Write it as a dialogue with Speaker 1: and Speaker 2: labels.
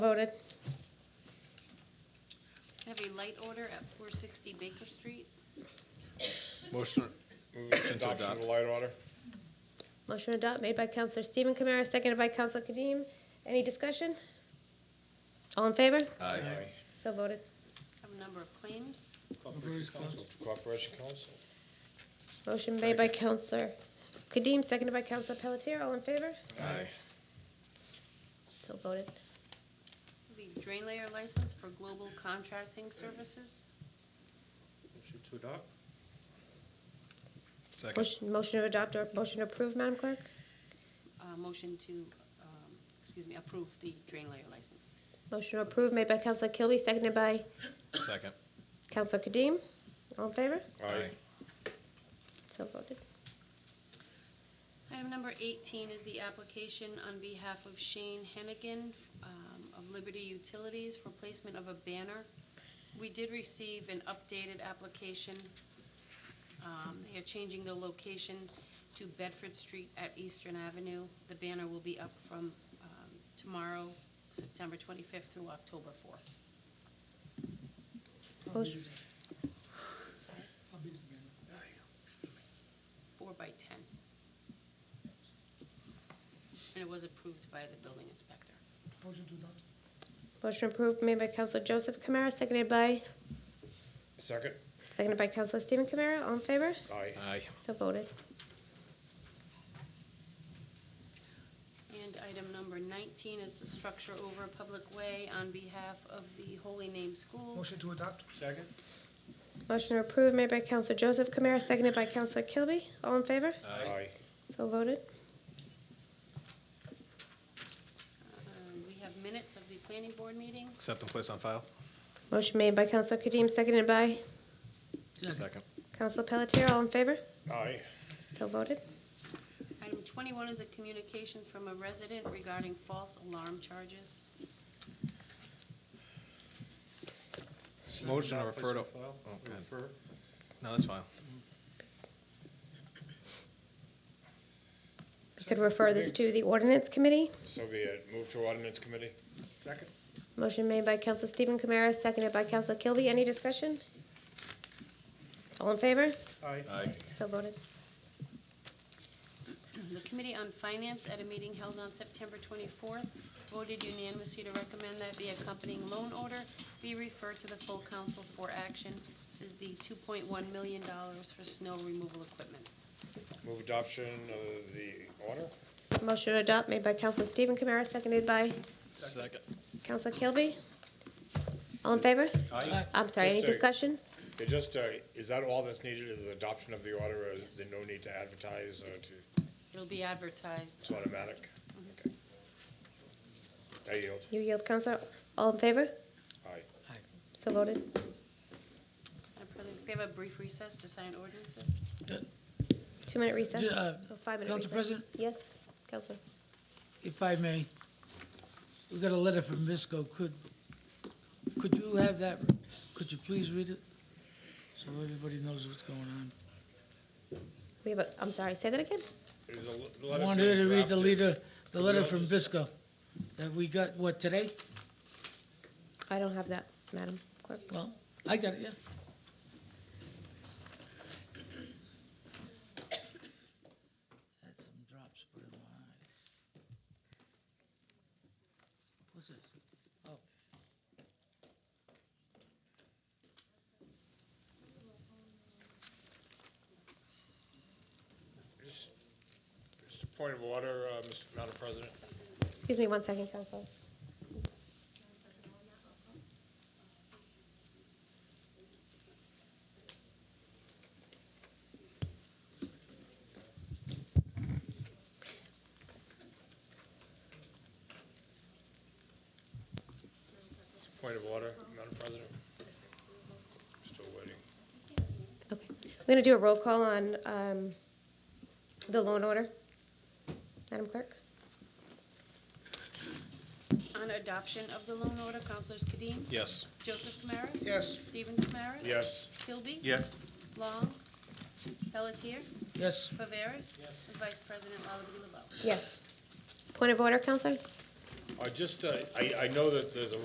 Speaker 1: Voted.
Speaker 2: Have a light order at four sixty Baker Street.
Speaker 3: Motion, motion to
Speaker 4: Adoption of
Speaker 3: adopt.
Speaker 4: the light order.
Speaker 1: Motion to adopt made by Counselor Stephen Kamara, seconded by Counselor Kadeem. Any discussion? All in favor?
Speaker 3: Aye.
Speaker 1: So voted.
Speaker 2: Have a number of claims.
Speaker 4: Corporation Council.
Speaker 1: Motion made by Counselor Kadeem, seconded by Counselor Pelletier. All in favor?
Speaker 3: Aye.
Speaker 1: So voted.
Speaker 2: Have a drain layer license for Global Contracting Services.
Speaker 4: Motion to adopt.
Speaker 3: Second.
Speaker 1: Motion, motion to adopt or motion to approve, Madam Clerk?
Speaker 2: Uh, motion to, um, excuse me, approve the drain layer license.
Speaker 1: Motion to approve made by Counselor Kilby, seconded by
Speaker 3: Second.
Speaker 1: Counselor Kadeem. All in favor?
Speaker 4: Aye.
Speaker 1: So voted.
Speaker 2: Item number eighteen is the application on behalf of Shane Hennigan um, of Liberty Utilities for placement of a banner. We did receive an updated application. Um, They are changing the location to Bedford Street at Eastern Avenue. The banner will be up from um, tomorrow, September twenty-fifth through October fourth.
Speaker 5: How big
Speaker 1: Motion-
Speaker 5: is it? How big is the banner?
Speaker 2: Four by ten. And it was approved by the building inspector.
Speaker 5: Motion to adopt.
Speaker 1: Motion approved made by Counselor Joseph Kamara, seconded by,
Speaker 4: Second.
Speaker 1: seconded by Counselor Stephen Kamara. All in favor?
Speaker 4: Aye.
Speaker 3: Aye.
Speaker 1: So voted.
Speaker 2: And item number 19 is the structure over a public way on behalf of the Holy Name School.
Speaker 5: Motion to adopt.
Speaker 4: Second.
Speaker 1: Motion to approve made by Counselor Joseph Kamara, seconded by Counselor Kilby. All in favor?
Speaker 4: Aye.
Speaker 1: So voted.
Speaker 2: Um, We have minutes of the planning board meeting.
Speaker 3: Accept and place on file.
Speaker 1: Motion made by Counselor Kadeem, seconded by
Speaker 3: Second.
Speaker 1: Counselor Pelletier. All in favor?
Speaker 4: Aye.
Speaker 1: So voted.
Speaker 2: Item 21 is a communication from a resident regarding false alarm charges.
Speaker 3: Motion to refer to,
Speaker 4: Place on file.
Speaker 3: oh, go ahead.
Speaker 4: Refer.
Speaker 3: no, that's fine.
Speaker 1: We could refer this to the ordinance committee.
Speaker 4: So be it. Move to ordinance committee. Second.
Speaker 1: Motion made by Counselor Stephen Kamara, seconded by Counselor Kilby. Any discussion? All in favor?
Speaker 4: Aye.
Speaker 3: Aye.
Speaker 1: So voted.
Speaker 2: The Committee on Finance, at a meeting held on September 24th, voted unanimously to recommend that the accompanying loan order be referred to the full council for action. This is the $2.1 million for snow removal equipment.
Speaker 4: Move adoption of the order.
Speaker 1: Motion to adopt made by Counselor Stephen Kamara, seconded by
Speaker 3: Second.
Speaker 1: Counselor Kilby. All in favor?
Speaker 3: Aye.
Speaker 1: I'm sorry, any
Speaker 4: Just a-
Speaker 1: discussion?
Speaker 4: It just, uh, is that all that's needed is the adoption of the order? or Is there no need to advertise or to,
Speaker 2: It'll be advertised.
Speaker 4: it's automatic?
Speaker 6: Mm-hmm.
Speaker 4: Okay. I yield.
Speaker 1: You yield, Counselor. All in favor?
Speaker 4: Aye.
Speaker 1: So voted.
Speaker 2: Madam President, can we have a brief recess to sign ordinances?
Speaker 1: Two-minute recess.
Speaker 6: Ju- uh,
Speaker 1: Oh, Five-minute recess.
Speaker 6: Council President?
Speaker 1: Yes, Counselor.
Speaker 6: If I may, we got a letter from Misco. Could, could you have that, could you please read it? So everybody knows what's going on.
Speaker 1: We have a, I'm sorry, say that again?
Speaker 4: There's a le-
Speaker 6: I
Speaker 4: letter
Speaker 6: wanted her to read the
Speaker 4: drafted.
Speaker 6: leader, the letter from Bisco that we got, what, today?
Speaker 1: I don't have that, Madam Clerk.
Speaker 6: Well, I got it, yeah. Had some drops put in my eyes. What's this? Oh.
Speaker 4: Just just a point of order, uh, Mr. Madam President.
Speaker 1: Excuse me one second, Counselor.
Speaker 4: It's a point of order, Madam President. Still waiting.
Speaker 1: Okay. We're going to do a roll call on um, the loan order. Madam Clerk?
Speaker 2: On adoption of the loan order, Councilors Kadim?
Speaker 3: Yes.
Speaker 2: Joseph Kamara?
Speaker 5: Yes.
Speaker 2: Stephen Kamara?
Speaker 4: Yes.
Speaker 2: Kilby?
Speaker 3: Yeah.
Speaker 2: Long? Pelletier?
Speaker 6: Yes,
Speaker 2: Viveras? And Vice President Lullaby Lebeau.
Speaker 1: Yes. Point of order, Counselor?
Speaker 4: Uh, just, uh, I, I know that there's a